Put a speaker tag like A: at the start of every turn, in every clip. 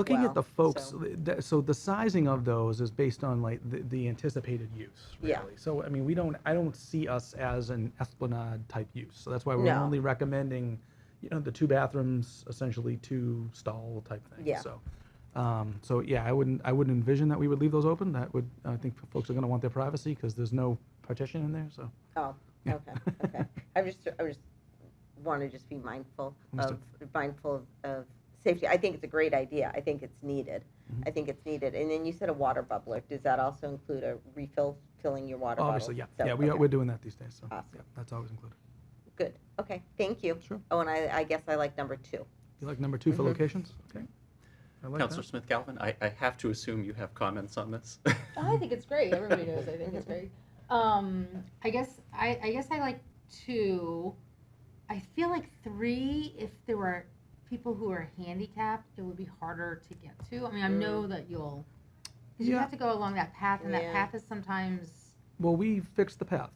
A: Looking at
B: well,
A: the folks,
B: so-
A: th- so the sizing of those is based on like the, the anticipated use,
B: Yeah.
A: really. So, I mean, we don't, I don't see us as an Esplanade type use. So that's why we're
B: No.
A: only recommending, you know, the two bathrooms, essentially two stall type thing.
B: Yeah.
A: So, um, so yeah, I wouldn't, I wouldn't envision that we would leave those open. That would, I think folks are gonna want their privacy because there's no partition in there, so.
B: Oh, okay, okay. I just, I just want to just be mindful of,
A: Understood.
B: mindful of, of safety. I think it's a great idea. I think it's needed.
A: Mm-hmm.
B: I think it's needed. And then you said a water bubbler. Does that also include a refill, filling your water bottle?
A: Obviously, yeah,
B: So,
A: yeah, we are,
B: okay,
A: we're doing that these days, so.
B: Awesome.
A: yeah, That's always included.
B: Good, okay, thank you.
A: Sure.
B: Oh, and I, I guess I like number two.
A: You like number two for
B: Mhm.
A: locations? Okay. I like that.
C: Counselor Smith Galvin, I, I have to assume you have comments on this.
D: Oh, I think it's great. Everybody knows I think it's great. Um, I guess I, I guess I like two. I feel like three. If there were people who are handicapped, it would be harder to get to. I mean, I know that you'll. 'cause You
A: Yeah.
D: have to go along that path, and
B: Yeah.
D: that path is sometimes
A: Well, we fixed the path.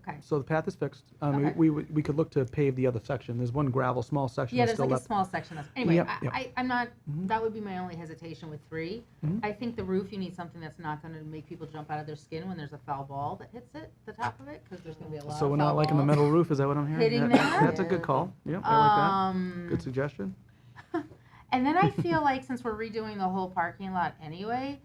D: okay.
A: So the path is fixed. Um,
D: Okay.
A: we, we, we could look to pave the other section. There's one gravel, small section
D: Yeah,
A: that's still
D: there's like a
A: left.
D: small section. That's, anyway,
A: Yep,
D: I,
A: yep.
D: I, I'm not.
A: Mhm.
D: That would be my only hesitation with 3
A: Mhm.
D: I think the roof. You need something that's not going to make people jump out of their skin when there's a foul ball that hits it, the top of it, because there's going to be a lot.
A: So
D: of
A: we're
D: foul
A: not liking the
D: balls.
A: metal roof, is that what I'm hearing?
D: Hitting
A: That-
D: that?
A: That's a
B: Yeah.
A: good call. Yeah, I like that.
D: Um,
A: Good suggestion.
D: and then I feel like since we're redoing the whole parking lot anyway,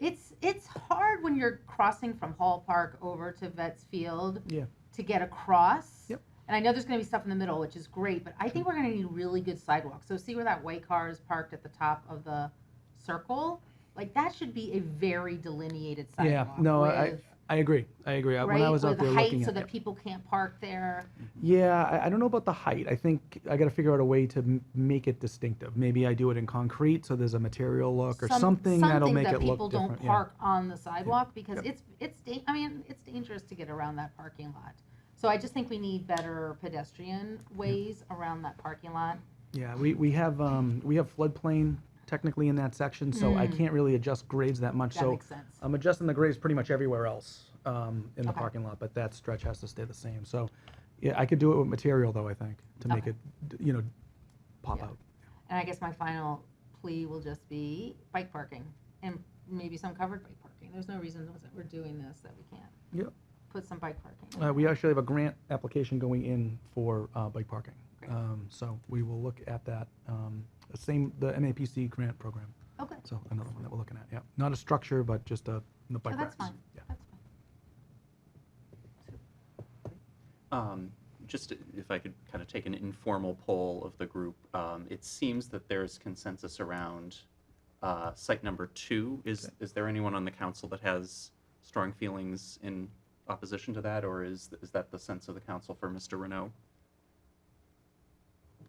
D: it's it's hard when you're crossing from Hall Park over to Vets Field
A: Yeah.
D: to get across.
A: Yep.
D: And I know there's going to be stuff in the middle, which is great, but I think we're going to need really good sidewalks. So see where that white car is parked at the top of the circle? Like that should be a very delineated
A: Yeah,
D: sidewalk.
A: no,
D: with,
A: I, I agree. I agree. I-
D: right,
A: When I was out
D: with
A: there
D: height
A: looking
D: so
A: at
D: that
A: it.
D: people can't park there.
A: Yeah, I, I don't know about the height. I think I gotta figure out a way to m- make it distinctive. Maybe I do it in concrete, so there's a material look or
D: some-
A: something that'll make it
D: that people
A: look
D: don't
A: different. yeah.
D: park on the sidewalk because
A: Yep.
D: it's, it's, da- I mean, it's dangerous to get around that parking lot. So I just think we need better pedestrian ways around that parking lot.
A: Yeah, we, we have, um, we have floodplain technically in that section, so I
D: Mm.
A: can't really adjust grades that much,
D: That
A: so. uh,
D: makes sense.
A: I'm adjusting the grades pretty much everywhere else um, in the
D: Okay.
A: parking lot, but that stretch has to stay the same. So, yeah, I could do it with material though, I think, to make
D: Okay.
A: it, d- you know, pop
D: Yeah.
A: out.
D: And I guess my final plea will just be bike parking and maybe some covered bike parking. There's no reason that we're doing this that we can't.
A: Yep.
D: Put some bike parking. in
A: Uh,
D: there.
A: we actually have a grant application going in for uh, bike parking.
D: Great.
A: Um, so we will look at that. Um, the same, the MAPC grant program.
D: Oh, good.
A: So another one that we're looking at. Yeah, not a structure, but just a the bike
D: Oh, that's
A: racks.
D: fine.
A: Yeah.
D: That's fine.
C: Um, Just if I could kind of take an informal poll of the group, um, it seems that there is consensus around uh, site number two. Is, is there anyone on the council that has strong feelings in opposition to that, or is, is that the sense of the council for Mr. Renault?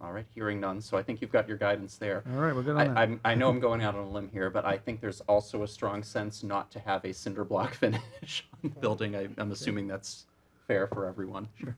C: All right, hearing none, so I think you've got your guidance there.
A: All right, we're good on that.
C: I, I'm, I know I'm going out on a limb here, but I think there's also a strong sense not to have a cinder block finish on the building. I, I'm assuming that's fair for everyone.
A: Sure.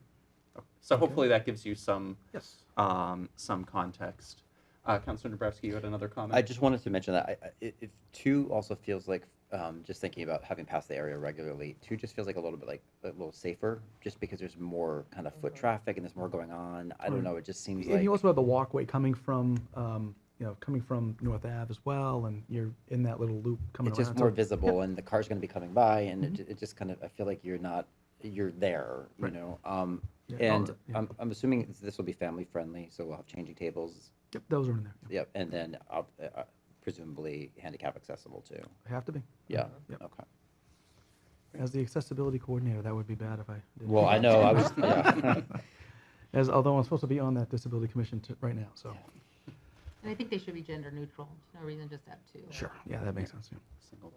C: So hopefully that gives you some,
A: yes.
C: um, some context. Uh, Councilor Nabrowski, you had another comment?
E: I just wanted to mention that I, I- i- if two also feels like, um, just thinking about having passed the area regularly, two just feels like a little bit like a little safer, just because there's more kind of foot traffic and there's more going on. I
A: Right.
E: don't know. It just seems
A: And
E: like
A: you also have the walkway coming from, um, you know, coming from North Ave as well, and you're in that little loop coming
E: it's just
A: around.
E: more
A: So
E: visible, and the car's going to be coming by, and it, it just kind of I feel like you're not you're there, you
A: Right.
E: know. Um,
A: Yeah, all
E: and
A: the- yeah.
E: I'm I'm assuming this- this will be family friendly, so we'll have changing tables.
A: Yep, those are in there.
E: Yep, and then uh, uh, presumably handicap accessible too.
A: Have to be.
E: Yeah.
A: Yep.
E: Okay.
A: As the accessibility coordinator, that would be bad if I did.
E: Well, I know I was. Yeah.
A: As, although I'm supposed to be on that disability commission t- right now, so.
D: And I think they should be gender neutral. There's no reason just to have two.
A: Sure, yeah, that makes sense, yeah.
C: Single.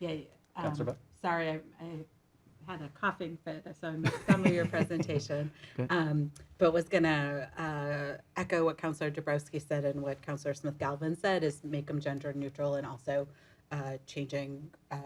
F: Yeah,
C: Councilor
F: um,
C: Bud?
F: sorry, I, I had a coughing fit, so I missed some of your presentation.
A: Okay.
F: Um, but was gonna, uh, echo what Counselor Dabrowski said and what Counselor Smith Galvin said is make them gender neutral and also, uh, changing, uh,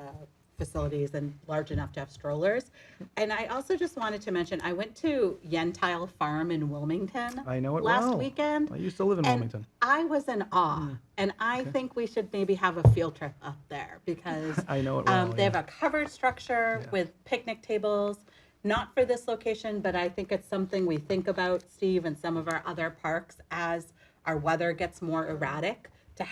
F: facilities and large enough to have strollers. And I also just wanted to mention, I went to Yentile Farm in Wilmington.
A: I know it
F: Last
A: well. Hmm.
F: weekend.
A: I used to live in
F: And
A: Wilmington.
F: I was in awe, and I think we should maybe have a field trip up there because
A: I know it
F: um,
A: well,
F: they have
A: Oh, yeah.
F: a covered structure
A: Yeah.
F: with picnic tables. Not for this location, but I think it's something we think about, Steve, and some of our other parks as our weather gets more erratic.